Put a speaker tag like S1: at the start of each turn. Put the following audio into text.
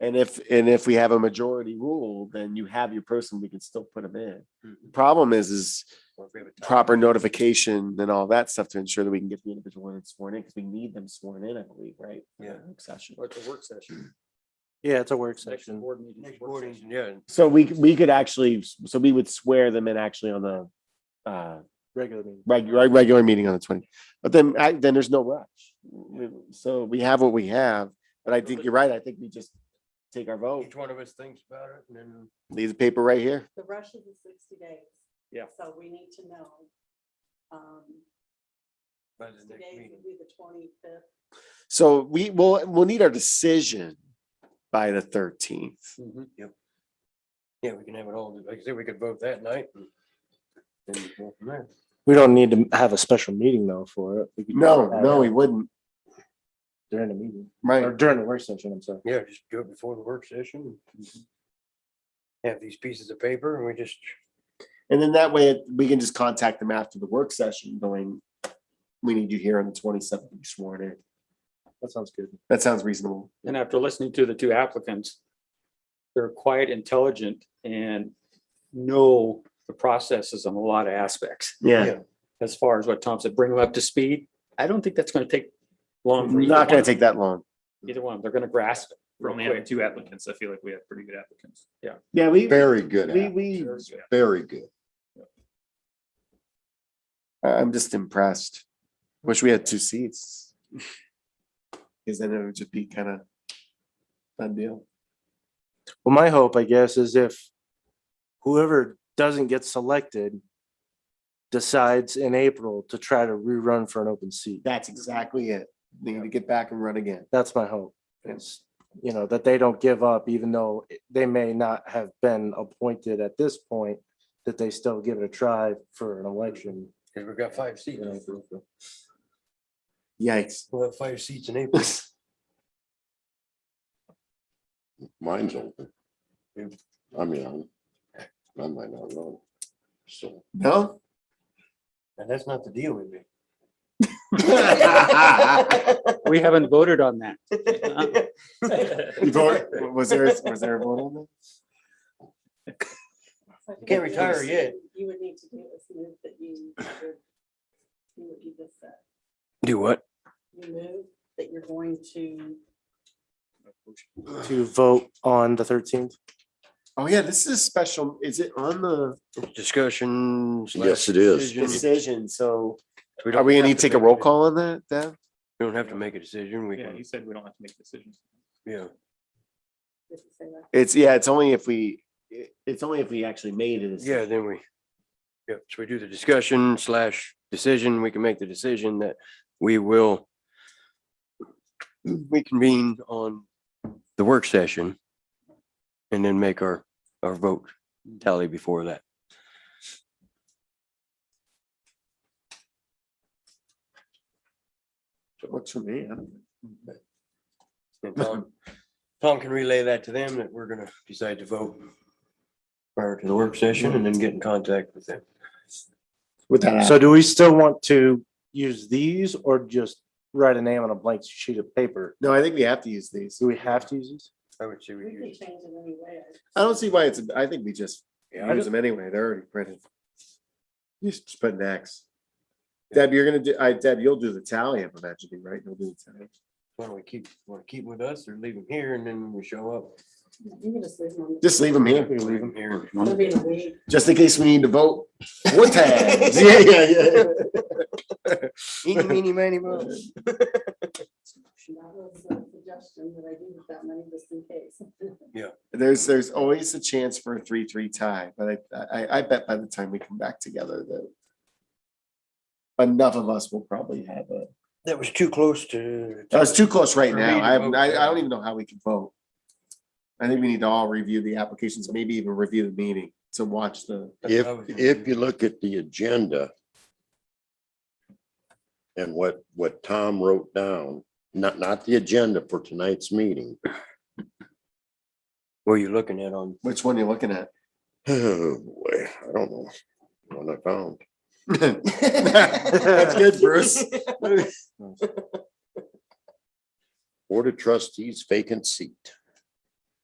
S1: And if, and if we have a majority rule, then you have your person, we can still put them in. Problem is, is proper notification and all that stuff to ensure that we can get the individual when it's sworn in, because we need them sworn in, I believe, right?
S2: Yeah.
S1: Session.
S3: Or it's a work session.
S4: Yeah, it's a work
S1: Hmm.
S3: Next
S4: session.
S3: board meeting.
S2: Next
S3: work
S2: boarding,
S3: session.
S2: yeah,
S1: So we, we could actually, so we would swear them in actually on the, uh,
S4: Regular meeting.
S1: regular, regular meeting on the twenty. But then, I, then there's no rush. We- So we have what we have, but I think you're right. I think we just take our vote,
S2: each one of us thinks about it and then.
S1: leave the paper right here.
S5: The rush is the sixty days.
S3: Yeah.
S5: So we need to know. Um,
S2: by the
S5: sixty
S2: next
S5: days
S2: meeting.
S5: would be the twenty-fifth.
S1: So we will, we'll need our decision by the thirteenth.
S2: Yeah, we can have it all, like I said, we could vote that night. and then go from there.
S4: We don't need to have a special meeting though for it. We could
S1: No,
S4: have
S1: no, we
S4: it
S1: wouldn't.
S4: During the meeting, or
S1: Right.
S4: during the work session, I'm sorry.
S2: Yeah, just do it before the work session. Have these pieces of paper and we just,
S1: And then that way we can just contact them after the work session going, we need you here on the twenty-seventh, you sworn in.
S4: That sounds good.
S1: That sounds reasonable.
S6: And after listening to the two applicants, they're quite intelligent and know the processes on a lot of aspects.
S1: Yeah,
S6: As far as what Tom said, bring them up to speed. I don't think that's going to take long. for either
S1: not gonna
S6: one.
S1: take that long.
S6: Either one, they're going to grasp it. real
S7: only having
S6: quick.
S7: two applicants, I feel like we have pretty good applicants.
S6: Yeah.
S1: Yeah, we,
S8: Very good.
S1: we,
S8: app,
S1: we,
S8: Very good.
S1: I- I'm just impressed. Wish we had two seats. Cause then it would just be kind of done deal.
S4: Well, my hope, I guess, is if whoever doesn't get selected decides in April to try to rerun for an open seat.
S1: That's exactly it. They Need to get back and run again.
S4: That's my hope. Is, you know, that they don't give up, even though it- they may not have been appointed at this point, that they still give it a try for an election.
S2: because we've got five seats.
S4: you know, for- for-
S1: Yikes.
S2: We'll have five seats in April.
S8: Mine's open.
S2: Yeah.
S8: I mean, I'm, I might not run. So.
S1: No?
S2: And that's not the deal with me.
S6: We haven't voted on that.
S1: You vote- Was there, was there a vote on that?
S5: So I think
S2: Can't
S5: what you
S2: retire
S5: would-
S2: yet.
S5: You would need to do is move that you. would- You would do this, uh,
S2: Do what?
S5: you move that you're going to,
S4: To vote on the thirteenth.
S1: Oh yeah, this is special. Is it on the
S2: Discussion. slash
S8: Yes, it is.
S2: decision.
S1: decision? So
S2: We
S1: are
S2: don't
S1: we gonna
S2: have
S1: need to take a
S2: make
S1: roll call on that, Deb?
S2: We don't have to make a decision. We
S7: Yeah,
S2: can,
S7: he said we don't have to make decisions.
S2: yeah.
S5: if you say that.
S1: It's, yeah, it's only if we, it- it's only if we actually made it.
S2: Yeah, then we, yeah, so we do the discussion slash decision, we can make the decision that we will we convene on the work session and then make our, our vote tally before that.
S1: Works for me. huh?
S2: And Tom, Tom can relay that to them that we're gonna decide to vote prior to the work session and then get in contact with them.
S1: With that.
S4: So do we still want to use these or just write a name on a blank sheet of paper?
S1: No, I think we have to use these.
S4: Do we have to use these?
S2: I would say we
S5: We can
S2: use.
S5: change it anyway.
S1: I
S2: Oh.
S1: don't see why it's, I think we just
S2: Yeah, I
S1: use them anyway. They're already printed. You just put an X. Deb, you're gonna do, I, Deb, you'll do the tally, I'm imagining, right? You'll do the tally.
S2: Why don't we keep, want to keep with us or leave them here and then when we show up?
S5: You can just leave them on. the-
S1: Just leave them here,
S2: Leave them here.
S5: It'll be in a week.
S1: just in case we need to vote. What times? Yeah, yeah, yeah.
S2: Eeny, meeny, miny, moe.
S5: That was a suggestion that I do with that money just in case.
S1: There's, there's always a chance for a three-three tie, but I, I, I bet by the time we come back together that enough of us will probably have a,
S2: That was too close to.
S1: that was too close right
S2: For me to
S1: now. I, haven't-
S2: vote.
S1: I, I don't even know how we can vote. I think we need to all review the applications, maybe even review the meeting to watch the,
S8: If, if you look at the agenda and what, what Tom wrote down, not, not the agenda for tonight's meeting.
S2: Were you looking at on?
S1: which one you're looking at.
S8: Oh, boy, I don't know. One I found.
S1: That's good, Bruce.
S8: Board of Trustees vacant seat.